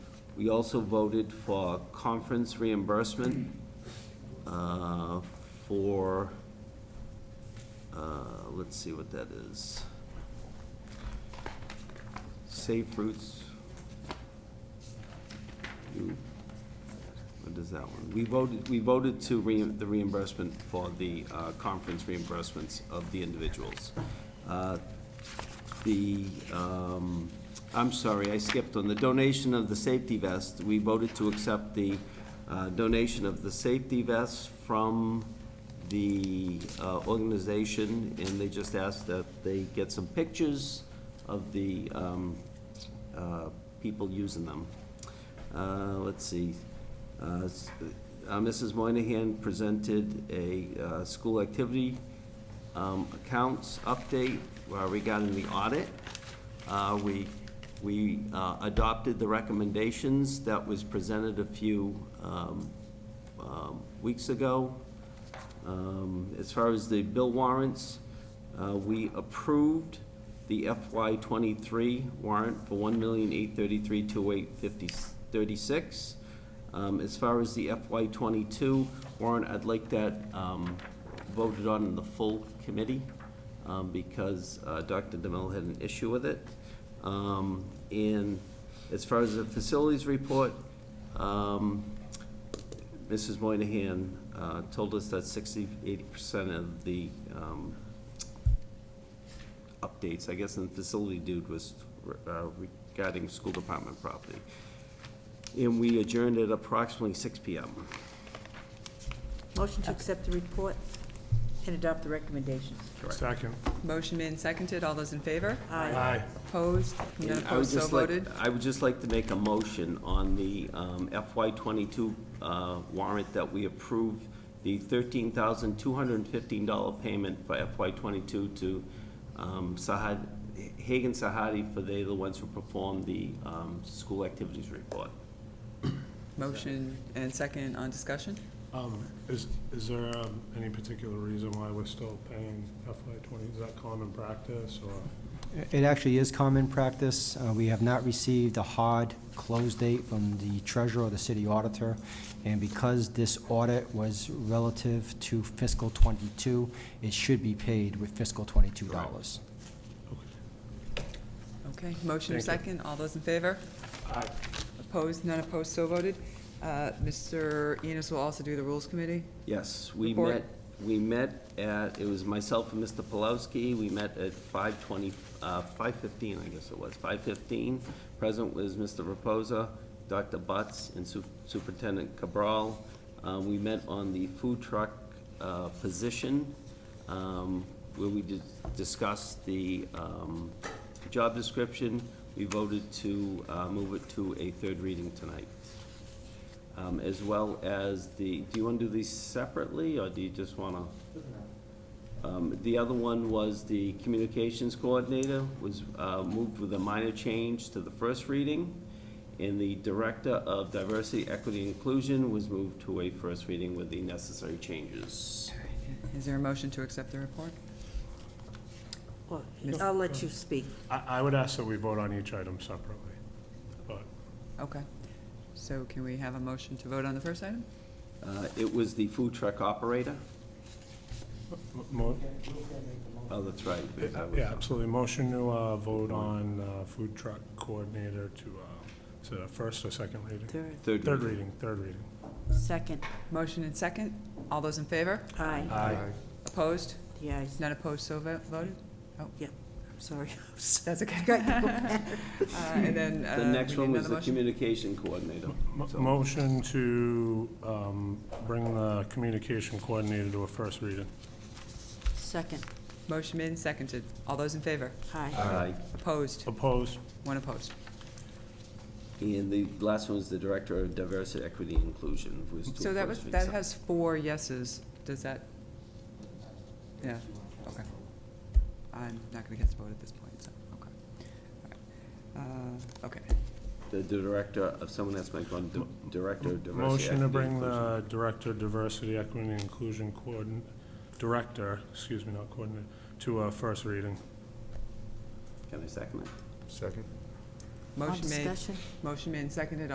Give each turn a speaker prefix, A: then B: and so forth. A: We also voted for conference reimbursement uh, for, uh, let's see what that is. Safe Routes. You- What is that one? We voted, we voted to re, the reimbursement for the uh, conference reimbursements of the individuals. Uh, the, um, I'm sorry, I skipped on the donation of the safety vest. We voted to accept the uh, donation of the safety vests from the uh, organization, and they just asked that they get some pictures of the um, uh, people using them. Uh, Let's see. Uh, s- uh, Mrs. Moynihan presented a uh, school activity um, accounts update uh, regarding the audit. Uh, We, we uh, adopted the recommendations that was presented a few um, um, weeks ago. Um, As far as the bill warrants, uh, we approved the FY twenty-three warrant for one million eight thirty-three two eight fifty thirty-six. Um, as far as the FY twenty-two warrant, I'd like that, um, voted on in the full committee, um, because, uh, Dr. DeMello had an issue with it. Um, and as far as the facilities report, um, Mrs. Moynihan, uh, told us that 60 80 percent of the, um, updates, I guess, and the facility dude was uh, regarding school department property. And we adjourned at approximately six PM.
B: Motion to accept the report and adopt the recommendations.
C: Second.
D: Motion made and seconded. All those in favor?
B: Aye.
D: Opposed? None
A: I would
D: opposed, so
A: just like-
D: voted.
A: I would just like to make a motion on the um, FY twenty-two uh, warrant that we approve the thirteen thousand two hundred and fifteen dollar payment for FY twenty-two to um, Sahad, Hagan Sahadi, for they, the ones who performed the um, school activities report.
D: Motion and second on discussion?
C: Um, Is, is there um, any particular reason why we're still paying FY twenty? Is that common practice or?
E: It actually is common practice. Uh, We have not received a hard close date from the treasurer or the city auditor. And because this audit was relative to fiscal '22, it should be paid with fiscal '22 dollars.
D: Okay, motion and
C: Thank
D: second. All those in favor?
C: Aye.
D: Opposed? None opposed, so voted. Uh, Mr. Enos will also do the Rules Committee.
A: Yes, we
D: Report.
A: met, we met at, it was myself and Mr. Polowski, we met at five twenty, uh, five fifteen, I guess it was, five fifteen. Present was Mr. Reposa, Dr. Butts, and Su- Superintendent Cabral. Uh, we met on the food truck, uh, position, um, where we did discuss the, um, job description. We voted to, uh, move it to a third reading tonight um, as well as the, do you want to do these separately, or do you just want to? Um, The other one was the communications coordinator was uh, moved with a minor change to the first reading, and the director of diversity, equity, and inclusion was moved to a first reading with the necessary changes.
D: Is there a motion to accept the report?
B: Well, I'll let you speak.
C: I, I would ask that we vote on each item separately, but
D: Okay. So can we have a motion to vote on the first item?
A: Uh, It was the food truck operator,
C: m- mo-
A: oh, that's right. because I was-
C: yeah, absolutely. Motion to uh, vote on uh, food truck coordinator to, uh, is it a first or second reading?
B: Third.
A: Third
C: Third
A: reading.
C: reading, third reading.
B: Second.
D: Motion and second. All those in favor?
B: Aye.
D: Opposed?
B: The ayes.
D: None opposed, so vo- voted?
B: I'm sorry.
D: That's okay.
B: Got you.
D: Uh, And then, uh,
A: The next
D: we
A: one
D: need
A: was
D: another
A: the
D: motion?
A: communication coordinator.
C: Mo-
A: So-
C: Motion to um, bring the communication coordinator to a first reading.
B: Second.
D: Motion made and seconded. All those in favor?
B: Aye.
A: Aye.
D: Opposed?
A: Oh.
C: Opposed?
D: One opposed.
A: And the last one is the Director of Diversity, Equity, and Inclusion, who is to
D: So that was,
A: first read
D: that
A: some-
D: has four yeses. Does that? Yeah, okay. I'm not gonna get to vote at this point, so, okay. All right. Uh, Okay,
A: The Director of, someone asked my phone, Di- Director of Diversity, Equity,
C: Motion to
A: and
C: bring
A: Inclusion.
C: the Director of Diversity, Equity, and Inclusion Coordin, Director, excuse me, not Coordinator, to a first reading.
A: Can I second it?
F: Second.
B: On
D: motion made,
B: discussion?
D: motion made and seconded.